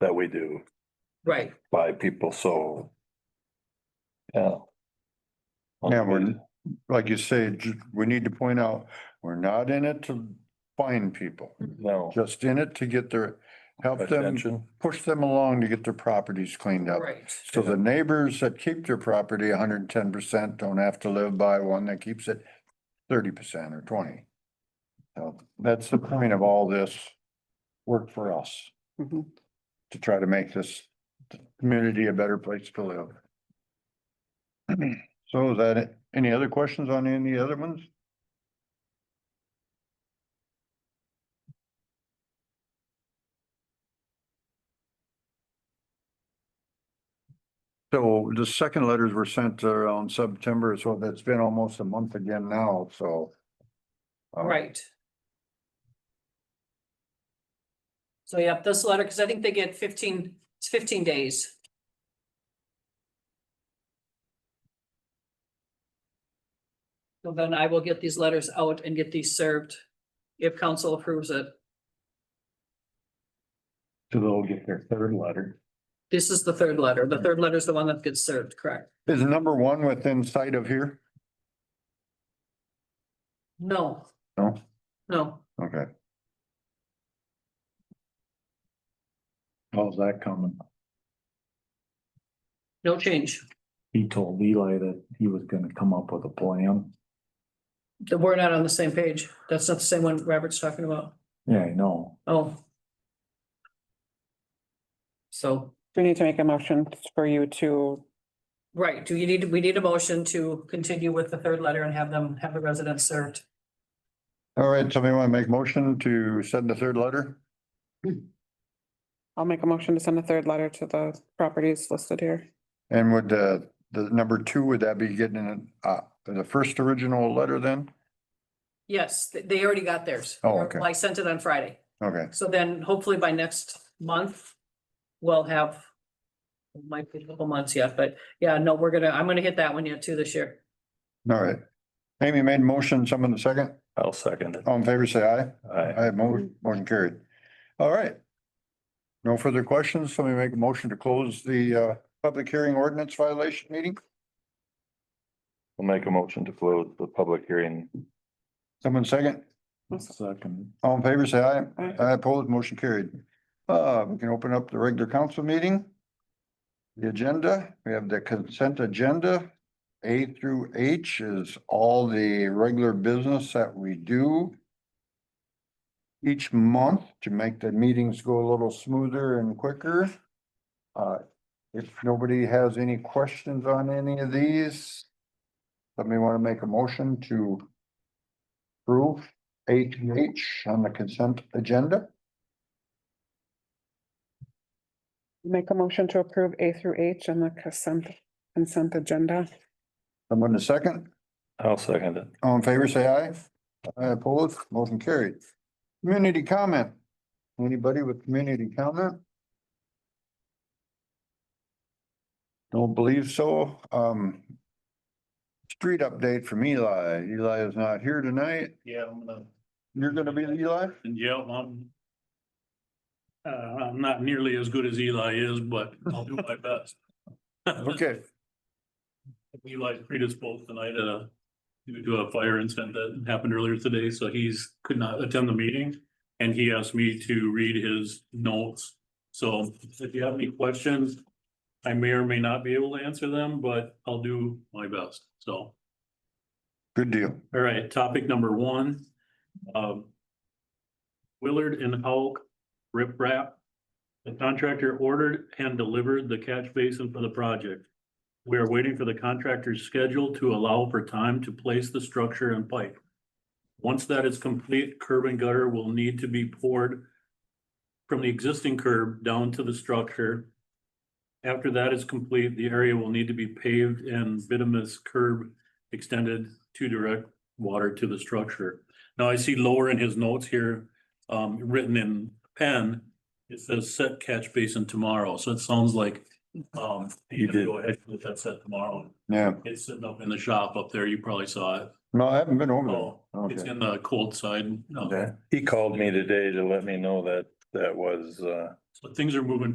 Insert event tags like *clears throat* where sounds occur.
that we do Right, by people, so. Yeah. Yeah, we're, like you say, ju- we need to point out, we're not in it to find people, No. just in it to get their, help them, Attention. push them along to get their properties cleaned up. right. So the neighbors that keep their property hundred and ten percent don't have to live by one that keeps it thirty percent or twenty. So that's the point of all this work for us, Mhm. to try to make this community a better place to live. *clears throat* So is that it? Any other questions on any other ones? So the second letters were sent around September, so that's been almost a month again now, so. um, Right. So yeah, this letter, because I think they get fifteen, it's fifteen days. So then I will get these letters out and get these served if council approves it. So they'll get their third letter. This is the third letter. The third letter is the one that gets served, correct? Is number one within sight of here? No. No. No, Okay. How's that coming? no change. he told Eli that he was gonna come up with a plan. That we're not on the same page. That's not the same one Robert's talking about. Yeah, I know. Oh. So, Do we need to make a motion for you to, right, do you need, we need a motion to continue with the third letter and have them, have the residents served? All right, somebody want to make motion to send the third letter? I'll make a motion to send a third letter to the properties listed here. And would the, the number two, would that be getting an, uh, the first original letter then? Yes, th- they already got theirs. Oh, okay. I sent it on Friday. Okay, So then hopefully by next month, we'll have. it Might be a couple months yet, but yeah, no, we're gonna, I'm gonna hit that one yet too this year. all right. Amy made motion, someone the second, I'll second it. all in favor, say aye. Aye. Aye, mo- motion carried. All right. No further questions, somebody make a motion to close the, uh, public hearing ordinance violation meeting? We'll make a motion to close the public hearing. Someone second? Second, All in favor, say aye. Aye. Aye, opposed, motion carried. Uh, we can open up the regular council meeting. The agenda, we have the consent agenda. A through H is all the regular business that we do each month to make the meetings go a little smoother and quicker. Uh, if nobody has any questions on any of these, somebody want to make a motion to approve A to H on the consent agenda? Make a motion to approve A through H and the consent, consent agenda. Someone to second? I'll second it. All in favor, say aye. Aye opposed, motion carried. Community comment. Anybody with community comment? Don't believe so. Um. Street update from Eli. Eli is not here tonight. Yeah, I'm gonna, You're gonna be Eli? and yeah, I'm. Uh, I'm not nearly as good as Eli is, but I'll do my best. *laughs* Okay, Eli's predisposed tonight, uh, due to a fire incident that happened earlier today, so he's could not attend the meeting. And he asked me to read his notes, so if you have any questions. I may or may not be able to answer them, but I'll do my best, so. good deal. All right, topic number one. um, Willard and Hulk riprap. The contractor ordered and delivered the catch basin for the project. We are waiting for the contractor's schedule to allow for time to place the structure and pipe. Once that is complete, curb and gutter will need to be poured from the existing curb down to the structure. After that is complete, the area will need to be paved and bituminous curb extended to direct water to the structure. Now I see lower in his notes here, um, written in pen, it says set catch basin tomorrow, so it sounds like, um, You he's did. gonna go ahead with that set tomorrow. Yeah, It's sitting up in the shop up there, you probably saw it. no, I haven't been over Oh, there. it's Okay, in the cold side. uh, He called me today to let me know that that was, uh, So things are moving